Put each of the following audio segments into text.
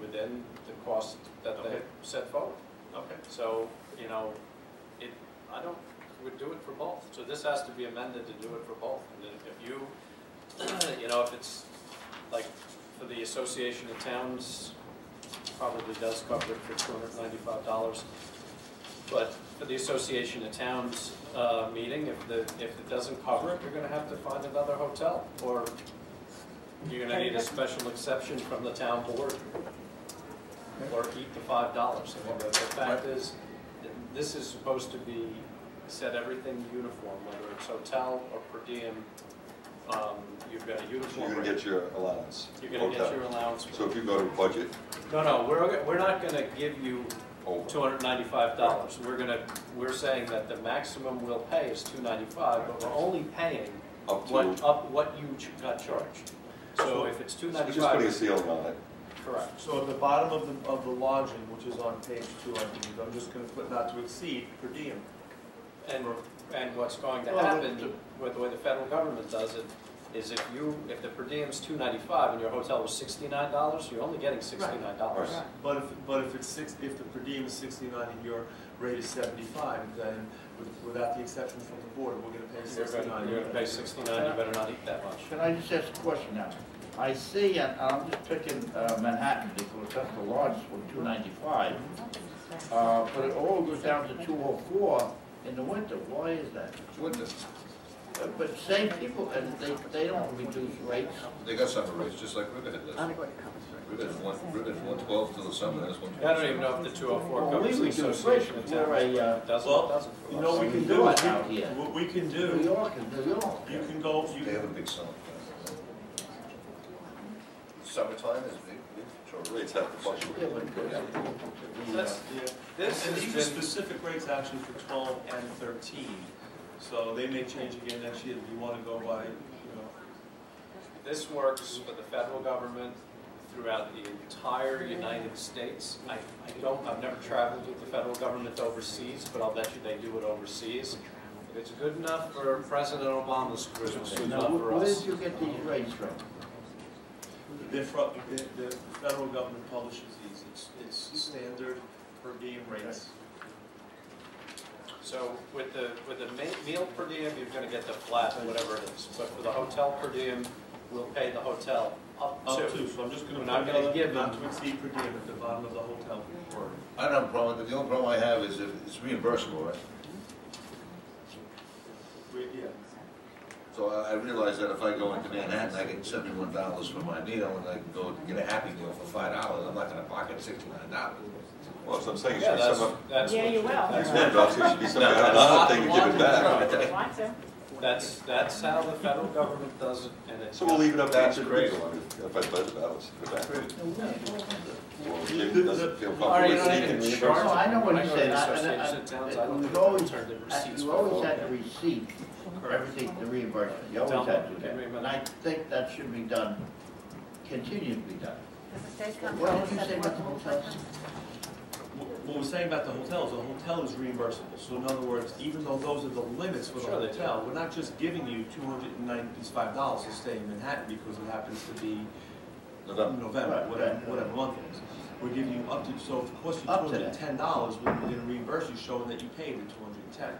within the cost that they Okay. set forward. Okay, So, you know, it, I don't, would do it for both. So this has to be amended to do it for both. And then if you, you know, if it's, like, for the Association of Towns, probably does cover it for two hundred ninety-five dollars. But for the Association of Towns, uh, meeting, if the, if it doesn't cover it, you're gonna have to find another hotel, or you're gonna need a special exception from the town board, or eat the five dollars. I mean, the, the fact is, th- this is supposed to be, set everything uniform, whether it's hotel or per diem, um, you've got a So you're uniform gonna rate. get your allowance. You're gonna get Okay. your allowance. So if you go to budget, No, no, we're, we're not gonna give you two over. hundred ninety-five dollars. We're gonna, we're saying that the maximum we'll pay is two ninety-five, but we're only paying Up to- what, up, what you ch- got charged. So if it's two So Just putting a ninety-five, seal on it. correct. so at the bottom of the, of the lodging, which is on page two, I believe, I'm just gonna put not to exceed per diem. And, and what's going to Well, happen, the- with the way the federal government does it, is if you, if the per diem's two ninety-five and your hotel was sixty-nine dollars, you're only getting sixty-nine dollars. Right. But if, but if it's six, if the per diem is sixty-nine and your rate is seventy-five, then with- without the exception from the board, we're gonna pay You're sixty-nine. gonna, you're gonna pay sixty-nine, you better not eat that much. Can I just ask a question now? I see, and I'm just picking uh, Manhattan because that's the largest one, two ninety-five. Uh, but it all goes down to two oh four in the winter. Why is that? Witness, Uh, But same people, and they, they don't reduce rates. they got summer rates, just like Riverhead does. Riverhead's one, Riverhead's one twelve till the summer, that's one I twelve. don't even know if the two oh four Well, we covers the reduce rates, association of we're towns. a, uh, Doesn't, Well, doesn't. You know, what we can We do, do is it out we- here. what we can New do, York is New York. you can go, you They can have a big summer. Summertime is big, big Our for Rates have to Yeah, fluctuate. but it goes out to the, uh, That's, Yeah, This has and these are been- specific rates actually for twelve and thirteen, so they may change again next year if you wanna go by, you know. this works for the federal government throughout the entire United States. I, I don't, I've never traveled with the federal government overseas, but I'll bet you they do it overseas. If it's good enough for President Obama's group, it's good Now, enough wh- for where us. did you get these rates from? They're fro- the, the federal government publishes these, it's, it's standard per diem rates. So with the, with the ma- meal per diem, you're gonna get the flat, whatever it is. But for the hotel per diem, we'll pay the hotel up Up to. to, so I'm just gonna We're put not gonna another, give not them- to exceed per diem at the bottom of the hotel word. I don't have a problem, with it. the only problem I have is if it's reimbursable, right? We, yeah, So I, I realize that if I go into Manhattan, I get seventy-one dollars for my meal, and I can go get a happy meal for five dollars, I'm not gonna pocket sixty-nine dollars. Well, so I'm saying, it Yeah, should be that's, some, that's. Yeah, what- you will. that's what- yeah, it should be some kind of other thing to give it back. Want to? That's, that's how the federal government does it, and it's. So we'll leave it up to each That's individual, I mean, if I budget it balance for that. Well, it doesn't feel All right, you comfortable don't seeking even reimbursement. charge. No, Oh, I know what I you're go to saying. the I- and I- Association of Towns, I don't we've think they always- turn the Uh, receipts You for all always that. had to receive everything, the reimbursement, you Tell always had them, to do give that. me a minute. And I think that should be done, continue to be done. Does the state come? What did you say about the hotels? Wh- what we're saying about the hotels, the hotel is reimbursable, so in other words, even though those are the limits for the Sure they do. hotel, we're not just giving you two hundred and ninety-five dollars to stay in Manhattan because it happens to be November. November, Right, whatever, right. whatever month it is. We're giving you up to, so if it costs you two Up to hundred and ten dollars, we're gonna reimburse you showing that you paid the two hundred and ten.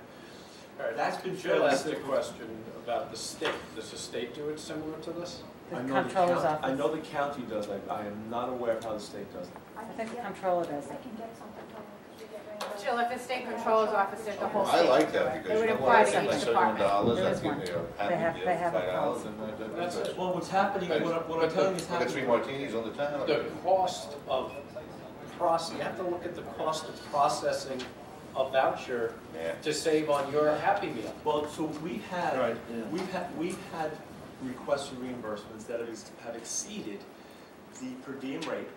All right, That's been Jill fairly asked a stick. question about the state. Does the state do it similar to this? I The know the comptroller's county- I office. know the county does, I, I am not aware of how the state does it. I I think think the comptroller does I it. can get something from them, because we get reimbursed. Jill, if the state controls office, there's the whole I state. like that, because It you would know what, I apply get to my each seventy-one dollars, department. There I is give one. me a They have- happy they meal, have a five dollars, policy. and I, I. That's it. Well, what's happening, I what, I- what I'm telling you is I got happening. three martinis on the town. The cost of process, you have to look at the cost of processing a voucher Yeah. to save on your Happy Meal. Well, so we've had, Right, yeah. we've had, we've had requests for reimbursements that have ex- have exceeded the per diem rate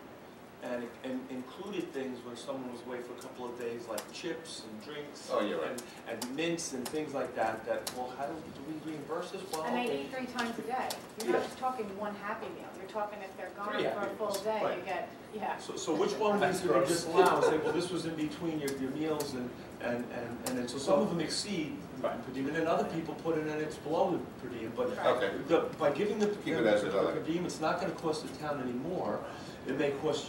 and, and included things when someone was away for a couple of days, like chips and drinks. Oh, you're right. and- And mints and things like that, that, well, how do, do we reimburse this? Well, And they eat three times a day. You're not just talking one Happy Meal, you're talking if they're gone Three for a Happy full Meals, day, you right. get, yeah. So, so which one of these did they disallow and say, well, this was in between your, your meals and, and, and, and then, so some of them exceed Right. per diem, and then other people put it in, it's below the per diem, but Okay. the, by giving the, the Keep it as it is. per diem, it's not gonna cost the town anymore. It may cost